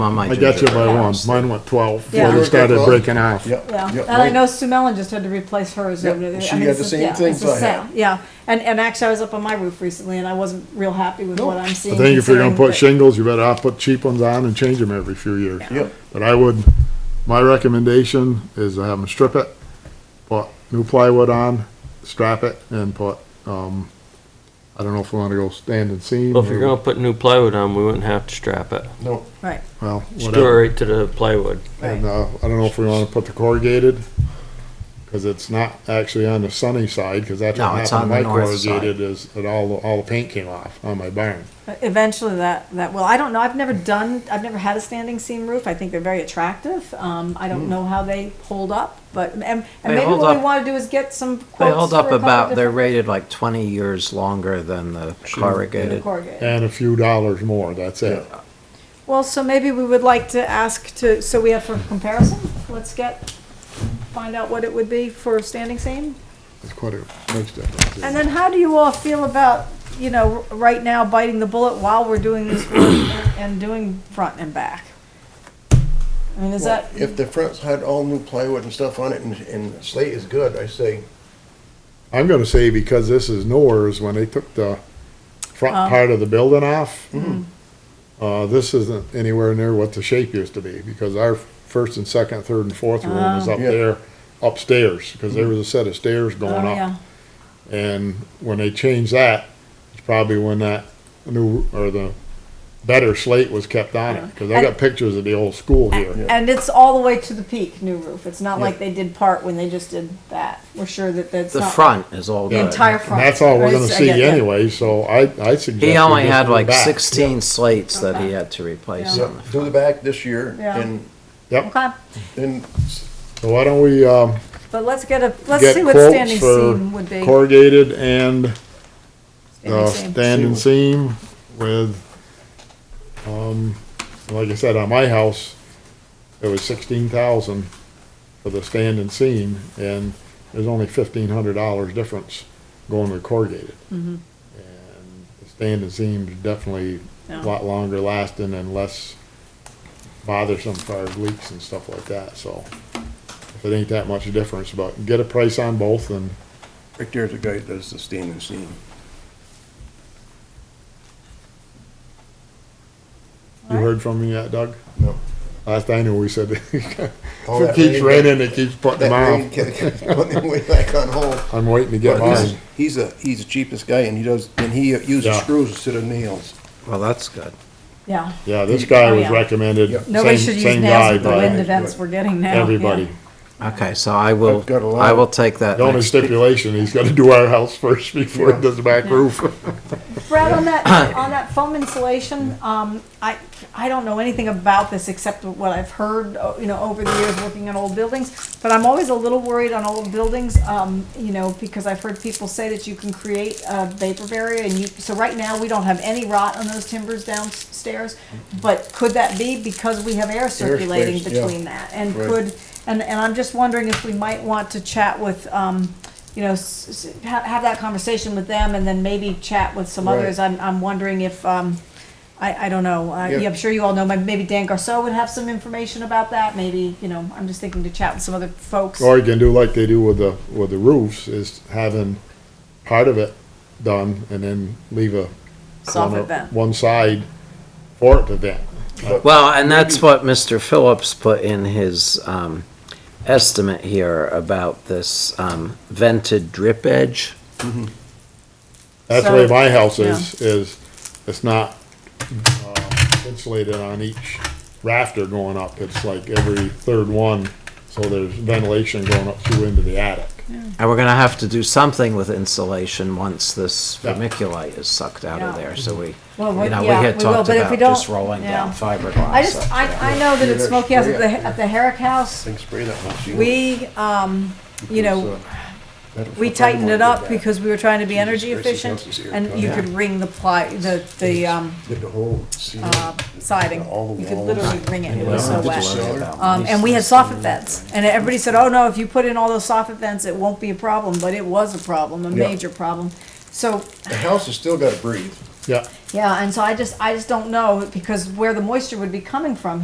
on my. I got you by gingerbread one. house. Mine went twelve Yeah. before they started breaking off. Yep. Yeah, yep, and I right. know Sue Mellon just had to replace hers. Yeah, over there. I she mean, had it's the a- same yeah, things it's the I had. same, Yeah, and, and actually, I was up on my roof recently, and I wasn't real happy with what I'm I seeing. think if you're gonna considering, put but- shingles, you better off put cheap ones on and change them every few years. Yep. But I would, my recommendation is to have them strip it, put new plywood on, strap it, and put, um, I don't know if we wanna go stand and seam. Well, if you're or- gonna put new plywood on, we wouldn't have to strap it. No, Right, Well, Screw whatever. it right to the plywood. And, uh, I don't know if we wanna put the corrugated, cause it's not actually on the sunny side, cause that's No, what it's happened to on my the north side. corrugated is, that all, all the paint came off on my barn. eventually that, that will, I don't know, I've never done, I've never had a standing seam roof, I think they're very attractive. Um, I Hmm. don't know how they hold up, but, and, and They maybe hold what we up- wanna do is get some quotes. They hold for a up couple about, they're different- rated like twenty years longer than the corrugated. corrugated. And a few dollars more, that's it. Well, so maybe we would like to ask to, so we have for comparison, let's get, find out what it would be for a standing seam. It's quite a, makes difference. And then how do you all feel about, you know, r- right now biting the bullet while we're doing this work and- and doing front and back? I mean, is that, if the fronts had all new plywood and stuff on it and, and slate is good, I say, I'm gonna say because this is Nor's, when they took the Oh. front part of the building off, Mm-hmm. uh, this isn't anywhere near what the shape used to be, because our first and second, third and fourth room was up Yeah. there upstairs, because there was a set of stairs going oh, yeah, up. And when they changed that, it's probably when that new, or the better slate was kept on Oh. it, because I got pictures of the old school here. and it's all the way to the peak, new roof, it's not like they did part when they just did that, we're sure that that's The not. front is all The good. entire And front. that's all we're right? gonna So I see get that. anyway, so I, I suggest. He we only just had go like back. sixteen slates that he Okay. had to replace Yeah. on yeah, the do the back this year Um, Yeah. and, Yep, Okay, and so why don't we, um, but let's get a, let's get see what quotes standing for seam would be. Corrugated and Standing the seam. standing seam with, um, like I said, on my house, it was sixteen thousand for the standing seam, and there's only fifteen hundred dollars difference going with corrugated. Mm-hmm. And the standing seam's definitely a Yeah. lot longer lasting and less bothersome for leaks and stuff like that, so. If it ain't that much difference, but get a price on both and right there's a guy that does the standing seam. You heard from me yet, Doug? No. Last I knew, we said, if All it Oh, that keeps rain- raining, it keeps putting That them rain out. kept- kept going way back on hold. I'm waiting to get But he's, mine. he's a, he's the cheapest guy and he does, and he uses Yeah. screws instead of nails. Well, that's good. Yeah, Yeah, this guy Oh, was yeah. recommended, Yep. nobody same, should use same nails guy with the wind by of- events we're getting now. yeah. everybody. Okay, so I will, I've got a lot. I will take that The only next- stipulation, he's gotta do our house first before Yeah. he does the back roof. Brad, on that, on that foam insulation, um, I, I don't know anything about this except what I've heard, uh, you know, over the years working on old buildings. But I'm always a little worried on old buildings, um, you know, because I've heard people say that you can create a vapor barrier and you, so right now, we don't have any rot on those timbers downstairs. But could that be because we have air circulating space, yeah. between that? And Right. could, and, and I'm just wondering if we might want to chat with, um, you know, s- s- have, have that conversation with them and then maybe chat with some Right. others. I'm, I'm wondering if, um, I, I don't know, uh, Yeah. yeah, I'm sure you all know, maybe maybe Dan Garceau would have some information about that, maybe, you know, I'm just thinking to chat with some other folks. Or you can do like they do with the, with the roofs, is having part of it done and then leave a. Soft corner- vent. One side for it to vent. Well, and that's what Mr. Phillips put in his um, estimate here about this um, vented drip edge. That's the So- way my house is, is it's not um, insulated on each rafter going up. It's like every third one, so there's ventilation going up through into the attic. And we're gonna have to do something with insulation once this Yeah. vermiculite is sucked out of Yeah. there, so we, you Well, we- know, we yeah, had we will, talked but if about we don't- just rolling down yeah. fiberglass. I just, up I, there. I know that at Yeah, Smokey House, yeah, at the, yeah. uh, at the Herrick House, Think spray that once. you- we, um, you know, we tightened it up because we were trying to be energy Christ, this efficient house is here, and you God. could ring the ply, the, the, um, Did the whole ceiling, uh, siding. all the You could walls. literally ring it, it We was so don't wet. have to worry about Um, and we had soffit vents, and everybody said, oh no, if you put in all those soffit vents, it won't be a problem, but it was a problem, a Yeah. major problem. So, The house has still gotta breathe. Yeah. yeah, and so I just, I just don't know, because where the moisture would be coming from